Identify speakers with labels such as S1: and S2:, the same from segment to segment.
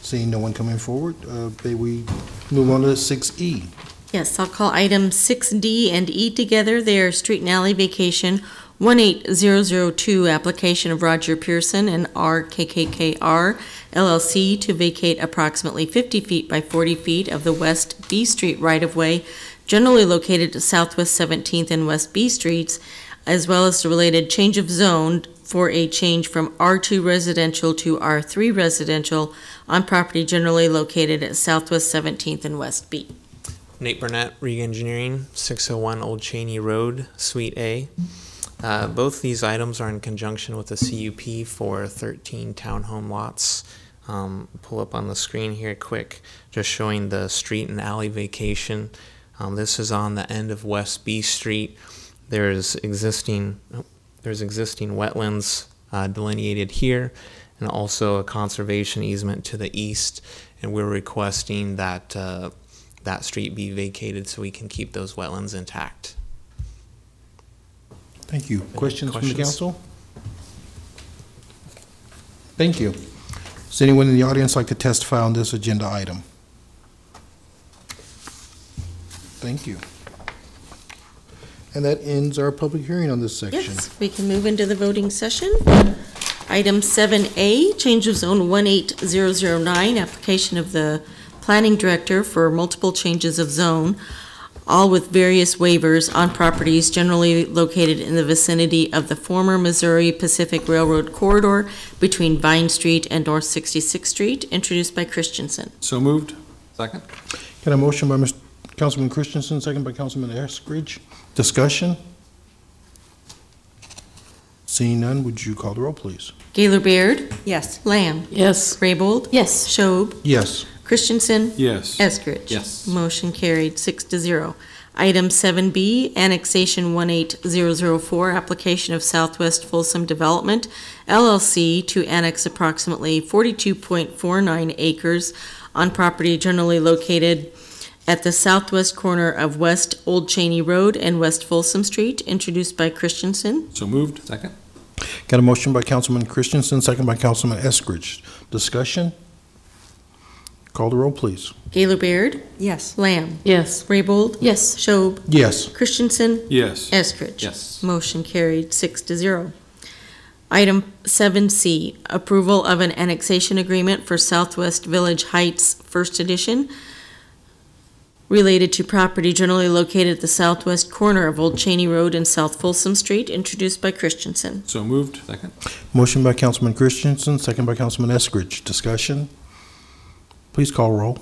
S1: Seeing no one coming forward, uh, may we move on to E. 6E?
S2: Yes, I'll call item 6D and E together. They are street and alley vacation 18002, application of Roger Pearson and RKKKR LLC to vacate approximately 50 feet by 40 feet of the West B Street right-of-way generally located to Southwest 17th and West B Streets, as well as the related change of zone for a change from R2 residential to R3 residential on property generally located at Southwest 17th and West B.
S3: Nate Burnett, Reg Engineering, 601 Old Cheney Road, Suite A. Uh, Both these items are in conjunction with the CUP for 13 townhome lots. Um, Pull up on the screen here quick, just showing the street and alley vacation. Um, This is on the end of West B Street. There's existing, oh, there's existing wetlands uh, delineated here, and also a conservation easement to the east, and we're requesting that uh, that street be vacated so we can keep those wetlands intact.
S1: Thank you. Questions from the
S3: questions?
S1: council? Thank you. Does anyone in the audience like to testify on this agenda item? Thank you. And that ends our public hearing on this section.
S2: Yes, we can move into the voting session. Item 7A, change of zone 18009, application of the planning director for multiple changes of zone, all with various waivers on properties generally located in the vicinity of the former Missouri Pacific Railroad corridor between Vine Street and North 66th Street, introduced by Christensen.
S1: So moved.
S4: Second?
S1: Got a motion by Mr. Councilman Christensen, second by Councilman Eskridge. Discussion? Seeing none, would you call the roll, please?
S2: Gaylor Baird?
S5: Yes.
S2: Lamb?
S5: Yes.
S2: Raybold?
S5: Yes.
S2: Schob?
S1: Yes.
S2: Christensen?
S4: Yes.
S2: Eskridge.
S4: Yes.
S2: Motion carried, six to zero. Item seven B, annexation one eight zero zero four, application of Southwest Folsom Development LLC to annex approximately forty-two point four nine acres on property generally located at the southwest corner of West Old Cheney Road and West Folsom Street, introduced by Christensen.
S4: So moved? Second?
S1: Got a motion by Councilman Christensen, second by Councilman Eskridge. Discussion? Call the roll, please.
S2: Gaylor Baird?
S5: Yes.
S2: Lamb?
S5: Yes.
S2: Raybold?
S5: Yes.
S2: Schob?
S1: Yes.
S2: Christensen?
S4: Yes.
S2: Eskridge?
S4: Yes.
S2: Motion carried, six to zero. Item seven C, approval of an annexation agreement for Southwest Village Heights First Edition related to property generally located at the southwest corner of Old Cheney Road and South Folsom Street, introduced by Christensen.
S4: So moved? Second?
S1: Motion by Councilman Christensen, second by Councilman Eskridge. Discussion? Please call roll.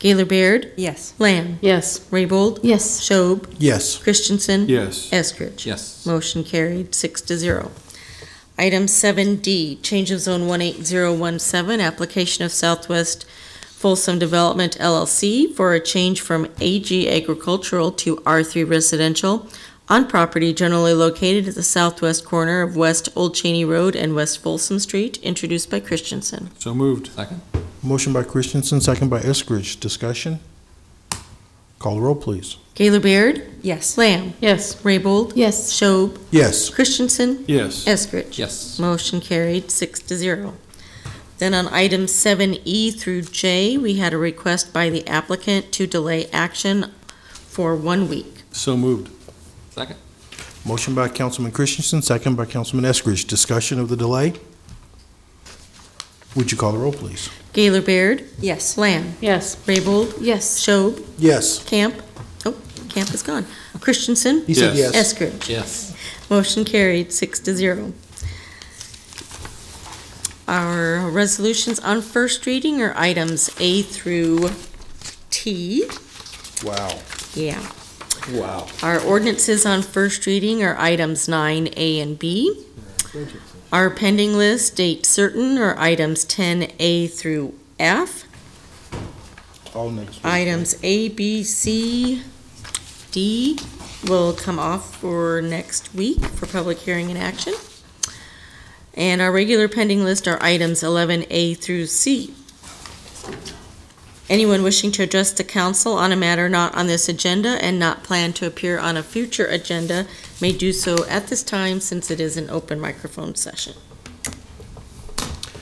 S2: Gaylor Baird?
S5: Yes.
S2: Lamb?
S5: Yes.
S2: Raybold?
S5: Yes.
S2: Schob?
S1: Yes.
S2: Christensen?
S4: Yes.
S2: Eskridge?
S4: Yes.
S2: Motion carried, six to zero. Item seven D, change of zone one eight zero one seven, application of Southwest Folsom Development LLC for a change from AG Agricultural to R three Residential on property generally located at the southwest corner of West Old Cheney Road and West Folsom Street, introduced by Christensen.
S4: So moved? Second?
S1: Motion by Christensen, second by Eskridge. Discussion? Call the roll, please.
S2: Gaylor Baird?
S5: Yes.
S2: Lamb?
S5: Yes.
S2: Raybold?
S5: Yes.
S2: Schob?
S1: Yes.
S2: Christensen?
S4: Yes.
S2: Eskridge?
S4: Yes.
S2: Motion carried, six to zero. Then on item seven E through J, we had a request by the applicant to delay action for one week.
S4: So moved? Second?
S1: Motion by Councilman Christensen, second by Councilman Eskridge. Discussion of the delay? Would you call the roll, please?
S2: Gaylor Baird,
S5: Yes.
S2: Lamb,
S5: Yes.
S2: Raybold,
S5: Yes.
S2: Schob,
S1: Yes.
S2: Camp, oh, Camp is gone, Christensen,
S1: He said
S4: Yes.
S1: yes.
S2: Eskridge.
S4: Yes.
S2: Motion carried, six to zero. Our resolutions on first reading are items A through T.
S1: Wow.
S2: Yeah.
S1: Wow.
S2: Our ordinances on first reading are items nine A and B. Our pending list, date certain, are items ten A through F.
S1: All next week.
S2: Items A, B, C, D will come off for next week for public hearing and action. And our regular pending list are items eleven A through C. Anyone wishing to address the council on a matter not on this agenda and not planned to appear on a future agenda may do so at this time since it is an open microphone session.